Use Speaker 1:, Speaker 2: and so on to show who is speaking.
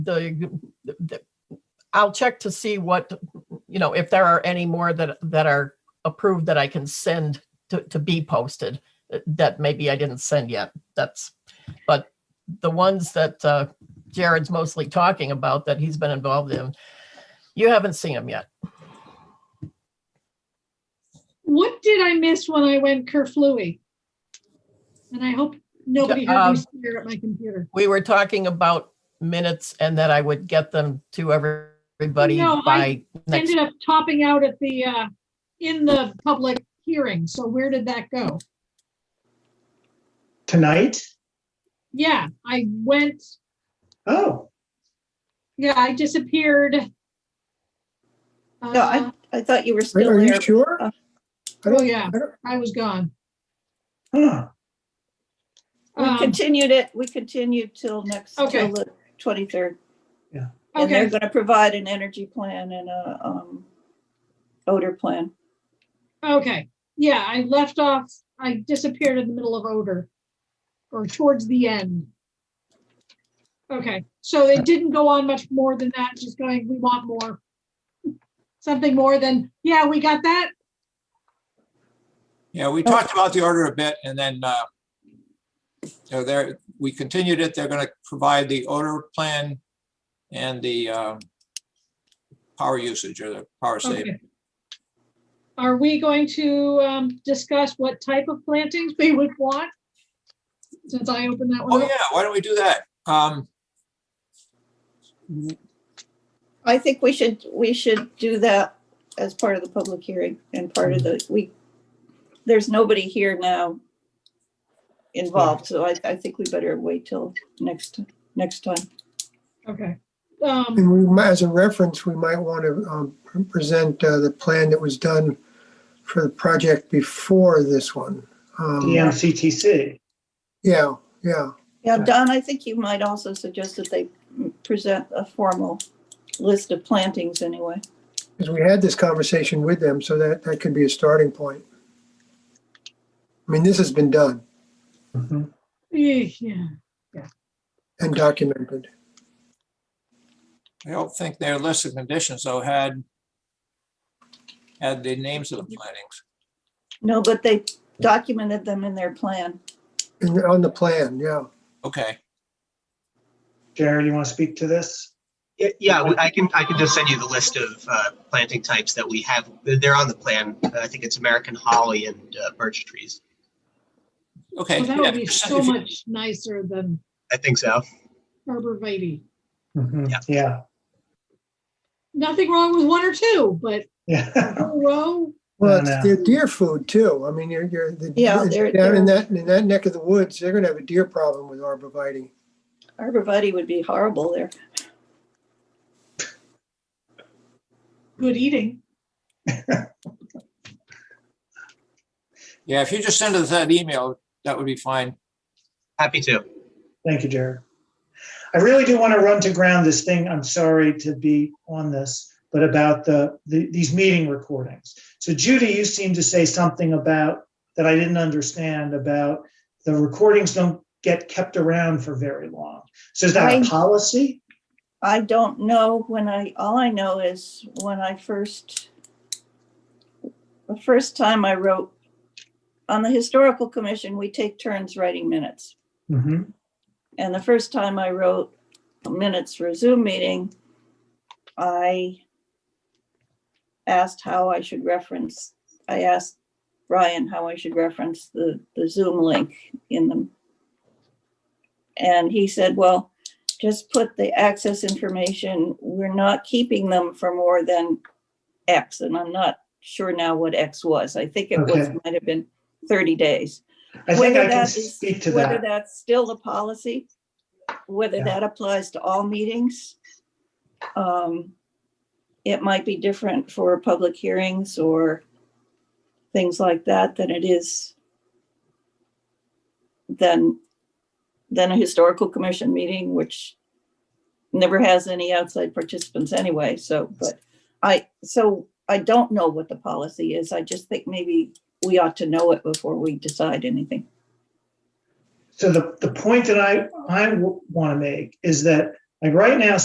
Speaker 1: the, the- I'll check to see what, you know, if there are any more that, that are approved that I can send to, to be posted uh, that maybe I didn't send yet. That's, but the ones that uh, Jared's mostly talking about that he's been involved in, you haven't seen them yet.
Speaker 2: What did I miss when I went kerflooey? And I hope nobody heard
Speaker 1: Um,
Speaker 2: me stare at my computer.
Speaker 1: We were talking about minutes and that I would get them to everybody
Speaker 2: No, I
Speaker 1: by next.
Speaker 2: Ended up topping out at the, uh, in the public hearing. So where did that go?
Speaker 3: Tonight?
Speaker 2: Yeah, I went,
Speaker 3: Oh,
Speaker 2: yeah, I disappeared.
Speaker 4: No,
Speaker 2: Uh,
Speaker 4: I, I thought you were
Speaker 3: are
Speaker 4: still
Speaker 3: are
Speaker 4: there.
Speaker 3: you sure?
Speaker 4: Uh,
Speaker 3: I
Speaker 2: Oh,
Speaker 3: don't,
Speaker 2: yeah,
Speaker 3: I don't-
Speaker 2: I was gone.
Speaker 3: huh,
Speaker 4: We
Speaker 2: Um,
Speaker 4: continued it, we continued till next, till
Speaker 2: Okay.
Speaker 4: the twenty-third. And they're
Speaker 2: Okay,
Speaker 4: gonna provide an energy plan and a, um, odor plan.
Speaker 2: okay. Yeah, I left off, I disappeared in the middle of odor or towards the end. Okay, so it didn't go on much more than that, just going, we want more. Something more than, yeah, we got that.
Speaker 5: Yeah,
Speaker 2: Oh.
Speaker 5: we talked about the order a bit and then uh, you know, there, we continued it. They're going to provide the order plan and the um, power usage or the power saving.
Speaker 2: Okay. Are we going to um, discuss what type of plantings we would want? Since I opened that
Speaker 5: Oh,
Speaker 2: one
Speaker 5: yeah,
Speaker 2: up.
Speaker 5: why don't we do that? Um,
Speaker 4: I think we should, we should do that as part of the public hearing and part of
Speaker 3: Mm-hmm.
Speaker 4: the, we, there's nobody here now involved, so I, I think we better wait till next, next time.
Speaker 2: Okay. Um,
Speaker 5: Mm.
Speaker 3: and we, might- as a reference, we might want to um, present uh, the plan that was done for the project before this one. Um,
Speaker 6: EMCTC.
Speaker 3: Yeah, yeah,
Speaker 4: Yeah, Don, I think you might also suggest that they present a formal list of plantings anyway.
Speaker 3: because we had this conversation with them, so that, that could be a starting point. I mean, this has been done
Speaker 6: Mm-hmm.
Speaker 2: eh, Yeah.
Speaker 3: and documented.
Speaker 5: I don't think their list of conditions though had had the names of the plantings.
Speaker 4: No, but they documented them in their plan.
Speaker 3: And on the plan, yeah.
Speaker 5: Okay,
Speaker 6: Jared, you want to speak to this?
Speaker 7: Yeah, yeah, we- I can, I can just send you the list of uh, planting types that we have. They're on the plan. I think it's American holly and uh, birch trees.
Speaker 5: okay.
Speaker 2: Well, that would
Speaker 5: yeah,
Speaker 2: be
Speaker 5: just-
Speaker 2: so
Speaker 5: if you-
Speaker 2: much nicer than
Speaker 7: I think so.
Speaker 2: arborvitae.
Speaker 6: Mhm,
Speaker 7: Yeah.
Speaker 6: Yeah,
Speaker 2: Nothing wrong with one or two, but a
Speaker 6: yeah.
Speaker 2: whole row,
Speaker 3: Well,
Speaker 6: I
Speaker 3: it's
Speaker 6: know.
Speaker 3: their deer food too. I mean, you're, you're, the-
Speaker 4: Yeah, they're-
Speaker 3: down in
Speaker 4: they're-
Speaker 3: that, in that neck of the woods, they're gonna have a deer problem with arborvitae.
Speaker 4: Arborvitae would be horrible there.
Speaker 2: good eating.
Speaker 5: Yeah, if you just send us that email, that would be fine.
Speaker 7: Happy to.
Speaker 6: Thank you, Jared. I really do want to run to ground this thing. I'm sorry to be on this, but about the, the these meeting recordings. So Judy, you seemed to say something about that I didn't understand about the recordings don't get kept around for very long. So is that
Speaker 4: Right.
Speaker 6: a policy?
Speaker 4: I don't know when I, all I know is when I first, the first time I wrote, on the historical commission, we take turns writing minutes.
Speaker 6: Mhm.
Speaker 4: And the first time I wrote minutes for a Zoom meeting, I asked how I should reference, I asked Brian how I should reference the, the Zoom link in them. And he said, well, just put the access information. We're not keeping them for more than X. And I'm not sure now what X was. I think it was,
Speaker 6: Okay.
Speaker 4: might have been 30 days
Speaker 6: I think
Speaker 4: whether
Speaker 6: I can
Speaker 4: that is-
Speaker 6: speak to
Speaker 4: Whether
Speaker 6: that.
Speaker 4: that's still the policy, whether
Speaker 6: Yeah.
Speaker 4: that applies to all meetings. um, It might be different for public hearings or things like that than it is than, than a historical commission meeting, which never has any outside participants anyway, so, but I, so I don't know what the policy is. I just think maybe we ought to know it before we decide anything.
Speaker 6: So the, the point that I, I want to make is that, like, right now,